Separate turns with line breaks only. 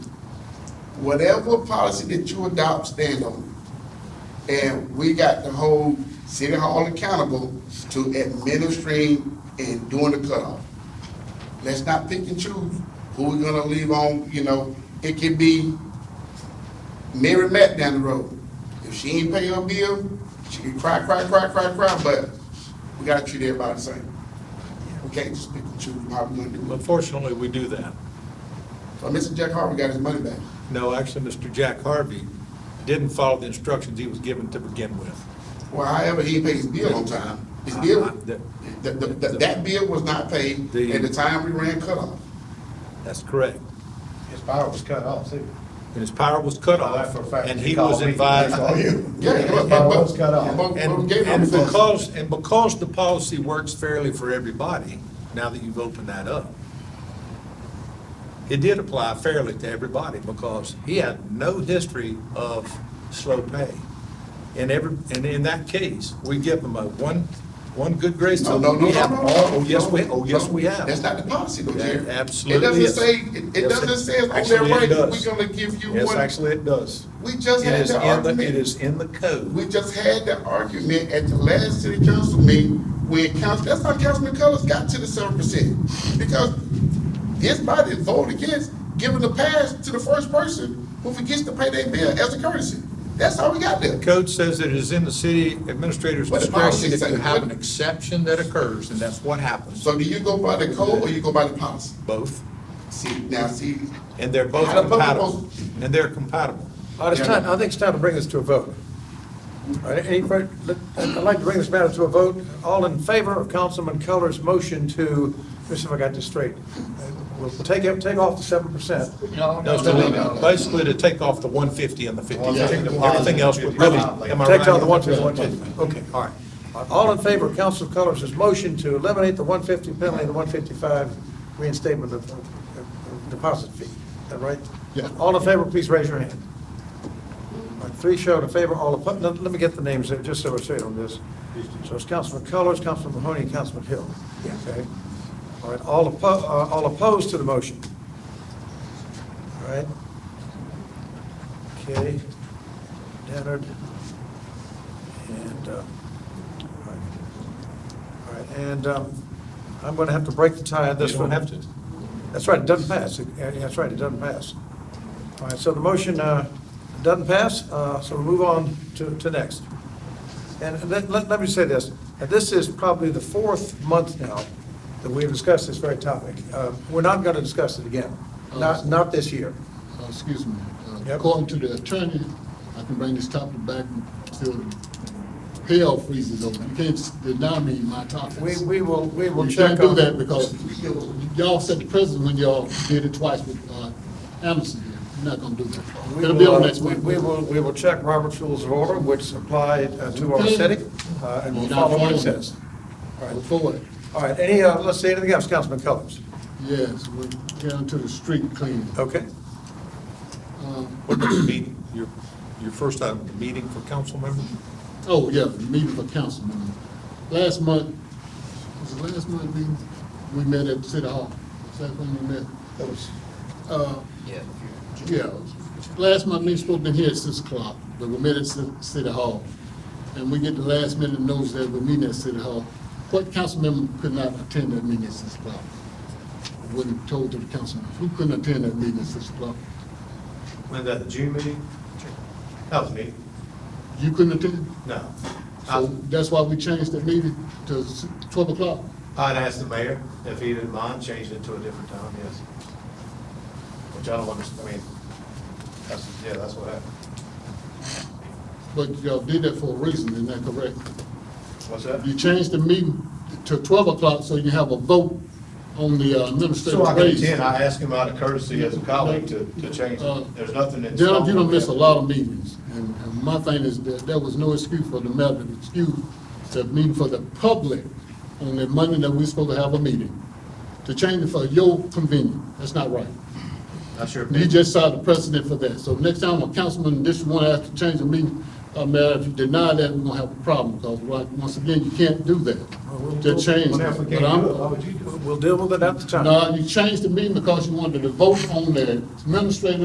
whatever policy that you adopt, stand on it. And we got to hold City Hall accountable to administering and doing the cutoff. Let's not pick and choose who we're gonna leave on, you know, it could be Mary Matt down the road. If she ain't pay her bill, she can cry, cry, cry, cry, cry, but we gotta treat everybody the same. We can't just pick and choose how we're gonna do it.
Unfortunately, we do that.
So Mr. Jack Harvey got his money back.
No, actually, Mr. Jack Harvey didn't follow the instructions he was given to begin with.
Well, however, he paid his bill on time. His bill,
Uh, that-
that, that, that bill was not paid
The-
at the time we ran cutoff.
That's correct.
His power was cut off too.
And his power was cut
Well, that's
off,
for a fact.
and
He
he
called
was
me.
advised.
That's all you.
Yeah.
His
but-
power
but-
was cut off.
but- but we
And,
gave him
and
the-
because, and because the policy works fairly for everybody, now that you've opened that up, it did apply fairly to everybody because he had no history of slow pay. And every, and in that case, we give him a one, one good grace.
No,
to-
no, no,
we
no,
have
no, no.
all- Oh, yes, we,
no,
oh, yes,
no.
we have.
That's not the policy though,
That
Jerry.
absolutely
It
is.
doesn't say, it- it
Yes,
doesn't say it's on
actually,
their
it
right,
does.
we're gonna give you
Yes,
one.
actually, it does.
We just
It
had
is
the
in the, it
argument,
is in the code.
we just had the argument at the last city council meeting when council, that's how Councilman Colors got to the seven percent. Because his body voted against giving the pass to the first person who forgets to pay their bill as a courtesy. That's how we got there.
Code says that it is in the city administrator's
But the policy
discretion if you
says-
have an exception that occurs, and that's what happens,
So do you go by the code or you go by the policy?
both.
See, now, see,
And they're both
How do both
compatible, and they're compatible.
Well, it's time, I think it's time to bring this to a vote. All right, Any, fir- let- I'd like to bring this matter to a vote. All in favor of Councilman Keller's motion to, let's see if I got this straight. Uh, We'll take, it- take off the seven percent.
No, so they- Basically, to take off the one fifty and the fifty,
Yeah.
everything else would really, am I right?
Takes out the one fifty, one fifty. Okay, all right. All in favor of Council Keller's motion to eliminate the one fifty penalty and the one fifty-five reinstatement of of deposit fee. Is that right?
Yeah.
All in favor, please raise your hand. All right, Three showed in favor, all opposed. Let let me get the names, there, just so we're straight on this. So it's Councilman Colors, Councilman Mahoney, and Councilman Hill. Okay. All right, all opposed, all opposed to the motion. All right. Okay. Dennard. And, uh, all right. All right, and um, I'm going to have to break the tie on
You
this one.
don't have to.
That's right, it doesn't pass. It- yeah, That's right, it doesn't pass. All right, so the motion uh, doesn't pass, uh, so we move on to, to next. And let, let let me say this, and this is probably the fourth month now that we've discussed this very topic. Uh, We're not going to discuss it again,
Oh.
not, not this year.
Uh, Excuse me. Uh,
Yep.
According to the attorney, I can bring this topic back until hell freezes over. You can't deny me my topics.
We, we will, we will
You
check
can't do
on.
that because y'all set the precedent when y'all did it twice with uh, Anderson. You're not gonna do that.
We
It'll be on
will, uh,
next
we-
week.
we will, we will check Robert's Rules of Order, which apply uh, to our
Okay.
setting, uh, and we'll
You're not
follow what
following
it says. All right.
Before it,
All right, any, uh, let's see, anything else, Councilman Cullors?
yes, we're down to the street cleaning.
Okay,
What does it mean? your, your first item, the meeting for council members?
Oh, yeah, the meeting for council members. Last month, was it last month meeting? We met at City Hall. Is that when we met? That was. Uh, yeah, last month, we supposed to be here at six o'clock, but we met at Ci- City Hall. And we get the last minute notice that we're meeting at City Hall. What council member could not attend that meeting at six o'clock? Wasn't told to the council, members. who couldn't attend that meeting at six o'clock?
When that, the June meeting? That was me,
You couldn't attend?
no.
So
I,
that's why we changed that meeting to s- twelve o'clock.
I'd asked the mayor if he didn't mind changing it to a different time, yes. Which I don't understand, I mean, that's, yeah, that's what happened.
But y'all did that for a reason, isn't that correct?
What's that?
You changed the meeting to twelve o'clock so you have a vote on the uh,
So I
administrative
can
raise.
attend, I asked him out of courtesy as a colleague to, to change
Uh,
it, there's nothing in.
Gerald, you don't miss a lot of meetings, and, and my thing is that there was no excuse for the matter, to excuse the meeting for the public on the Monday that we're supposed to have a meeting. To change it for your convenience, that's not right.
Not sure.
You just saw the precedent for that. So next time a councilman in District One has to change the meeting, uh, Mayor, if you deny that, we're gonna have a problem, because once again, you can't do that. To change.
Well, if we
that.
can't
But I'm-
do it, why would you do it?
we'll- we'll deal with it at the time.
No, you changed the meeting because you wanted to vote on the administrative